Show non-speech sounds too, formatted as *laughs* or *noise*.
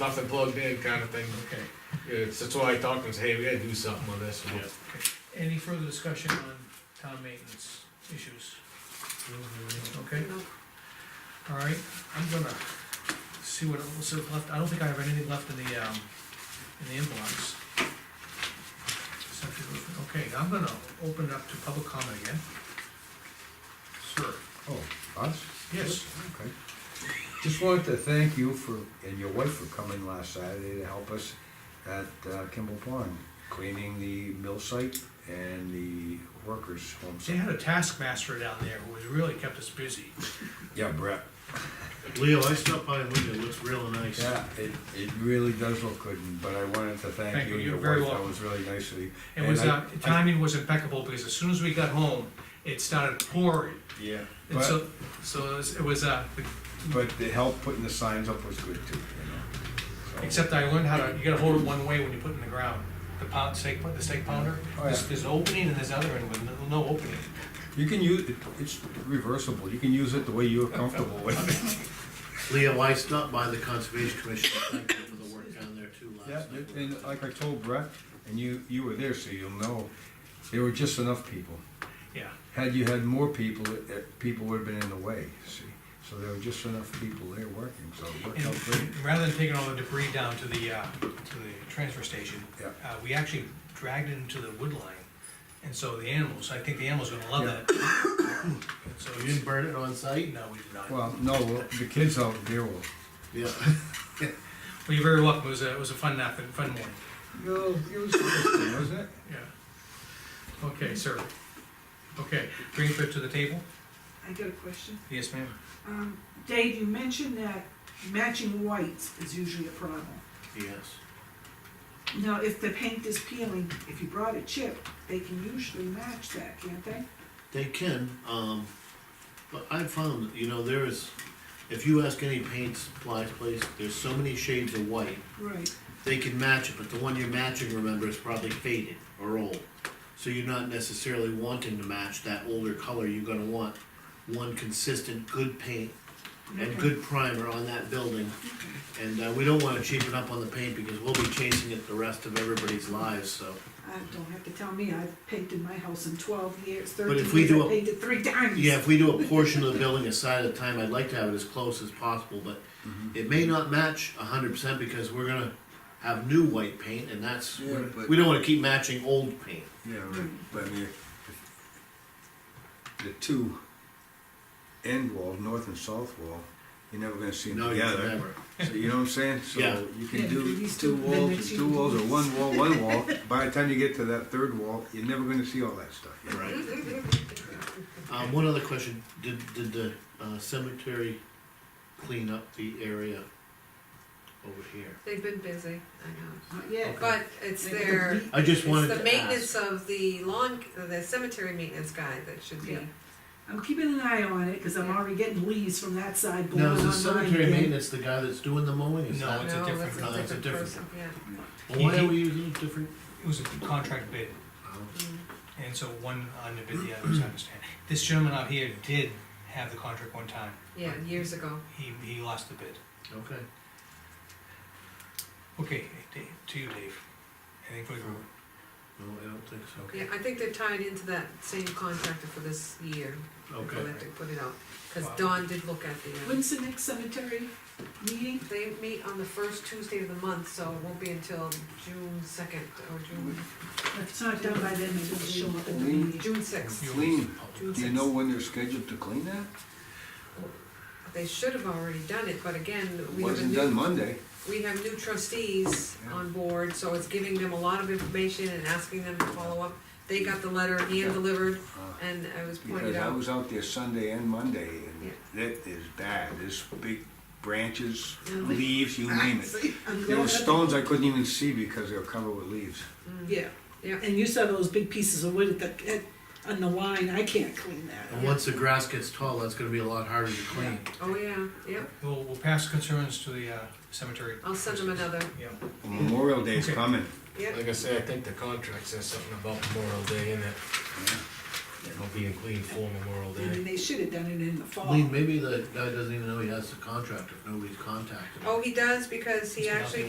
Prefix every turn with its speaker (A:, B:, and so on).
A: nothing plugged in kind of thing.
B: Okay,
A: It's, that's why I talked and said, hey, we gotta do something with this.
C: Yeah.
B: any further discussion on town maintenance issues?
D: Mm-hmm.
B: Okay, all right, I'm gonna see what else is left, I don't think I have anything left in the, um, in the inbox. Subject of- Okay, I'm gonna open it up to public comment again. Sir,
D: Oh, us?
B: yes,
D: Okay. Just wanted to thank you for, and your wife for coming last Saturday to help us at uh, Kimball Pond, cleaning the mill site and the workers' home
B: they
D: site.
B: had a taskmaster down there who was really kept us busy.
D: Yeah, Brett.
C: Leo, I stopped by and looked, it looks real nice.
D: Yeah, it, it really does look good, but I wanted to
B: Thank
D: thank
B: you,
D: you and your
B: you're very
D: wife, that
B: welcome.
D: was really nice of you.
B: It was,
D: And I-
B: uh, timing was impeccable, because as soon as we got home, it started pouring,
D: Yeah,
B: and
D: but,
B: so, so it was, it was, uh,
D: but the help putting the signs up was good too, you know. so.
B: Except I learned how to, you gotta hold it one way when you put it in the ground, the pound, steak, the steak pounder.
D: Oh,
B: There's,
D: yeah.
B: there's an opening and there's other end with no- no opening.
D: You can use, it. it's reversible, you can use it the way you're comfortable with
B: *laughs*
D: it.
C: Leo, I stopped by the Conservation Commission, thank you for the work down there too
D: Yeah,
C: last
D: and-
C: night.
D: and like I told Brett, and you, you were there, so you'll know, there were just enough people.
B: Yeah,
D: Had you had more people, it- it- people would've been in the way, see? So there were just enough people there working, so it worked out Oh, great.
B: and rather than taking all the debris down to the, uh, to the transfer station,
D: Yeah.
B: uh, we actually dragged it into the wood line. And so the animals, I think the animals are gonna love
D: Yeah.
B: that. And So,
C: You didn't burn it on site?
B: no, we did not. Well,
D: Well, no, well, the kids out there will,
C: Yeah.
A: *laughs*
B: you're very welcome, it was a, it was a fun nap and fun morning,
D: no, it was interesting, wasn't it?
B: yeah. Okay, sir. Okay, bring it back to the table?
E: I got a question.
B: Yes, ma'am.
E: Um, Dave, you mentioned that matching whites is usually a problem.
C: Yes.
E: Now, if the paint is peeling, if you brought a chip, they can usually match that, can't they?
C: They can, um, but I've found, you know, there is, if you ask any paint supply place, there's so many shades of white.
E: Right.
C: They can match it, but the one you're matching, remember, is probably faded or old. So you're not necessarily wanting to match that older color, you're gonna want one consistent, good paint and good primer on that building. And, uh, we don't wanna cheapen up on the paint because we'll be chasing it the rest of everybody's lives, so.
E: Uh, don't have to tell me, I've painted my house in twelve years,
C: But if
E: thirteen
C: we
E: years,
C: do
E: I
C: a-
E: painted three times.
C: Yeah, if we do a portion of the building a side at a time, I'd like to have it as close as possible, but
D: Mm-hmm.
C: it may not match a hundred percent because we're gonna have new white paint and that's,
D: Yeah, but-
C: we don't wanna keep matching old paint.
D: Yeah,
E: right.
D: but I mean, if- the two end walls, north and south wall, you're never gonna see them
C: No, you
D: together.
C: never.
D: So you know what I'm saying? So
C: Yeah.
D: you
E: Yeah,
D: can
E: do
D: do
E: these
D: two
E: two, then
D: walls,
E: next
D: and
E: you
D: two
E: do
D: walls, or
E: this.
D: one wall,
F: *laughs*
D: one wall. By the time you get to that third wall, you're never gonna see all that stuff. you know?
C: Right. *laughs* Um, one other question, did, did the uh, cemetery clean up the area over here?
F: They've been busy, I know.
E: Not yet.
F: But it's
E: They could
F: their,
E: be-
C: I just
F: it's
C: wanted
F: the
C: to
F: maintenance
C: ask.
F: of the lawn, the cemetery maintenance guy that should be.
E: Yeah. I'm keeping an eye on it, cause I'm already getting leaves from that side blowing
C: Now,
E: on
C: is the
E: mine
C: cemetery
E: again.
C: maintenance the guy that's doing the mowing, is
B: No,
C: that?
B: It's a
F: No,
B: different-
C: no, it's a different-
F: person, yeah.
C: Well, Why are we using a different?
B: It was a contract bid.
C: oh,
B: And so one underbid the other, as I understand. This gentleman out here did have the contract one time.
F: Yeah, years ago.
B: He, he lost the bid.
C: Okay.
B: Okay, Dave, to you, Dave. Anything for the group?
C: No, I don't think so.
F: Yeah, I think they're tied into that same contractor for this year. They'll
C: Okay.
F: have to put it out, because
B: Wow.
F: Don did look at the, uh,
E: When's the next cemetery meeting?
F: they meet on the first Tuesday of the month, so it won't be until June second or June,
E: If it's not done by then, maybe will show up at the meeting.
F: June sixth.
D: Clean.
F: June
D: Do you
F: sixth.
D: know when they're scheduled to clean that?
F: They should have already done it, but again, we have a
D: Wasn't
F: new
D: done Monday.
F: we have new trustees on board, so it's giving them a lot of information and asking them to follow up. They got the letter hand-delivered,
D: Uh,
F: and I was pointed
D: Because I
F: out,
D: was out there Sunday and Monday,
F: Yeah.
D: and that is bad. There's big branches,
F: Mm.
D: leaves, you name
F: *laughs*
D: it.
E: See, *laughs* I'm
D: There
E: glad-
D: were stones I couldn't even see because they were covered with leaves.
E: Yeah.
F: yeah,
E: And you saw those big pieces of wood at the, at, on the line, I can't clean
C: And
E: that.
C: once the grass gets tall, that's gonna be a lot harder to clean.
F: oh, yeah, yeah,
B: We'll, we'll pass concerns to the uh, cemetery.
F: I'll send them another,
B: Yeah.
D: Memorial Day's
B: Okay.
D: coming.
F: yeah.
A: Like I say, I think the contract says something about Memorial Day in it. It'll be in clean form Memorial
E: I mean,
A: Day.
E: they should have done it in the fall.
C: Lean, maybe the guy doesn't even know he has the contract if nobody's contacted him.
F: Oh, he does, because he
B: He's been out
F: actually
B: there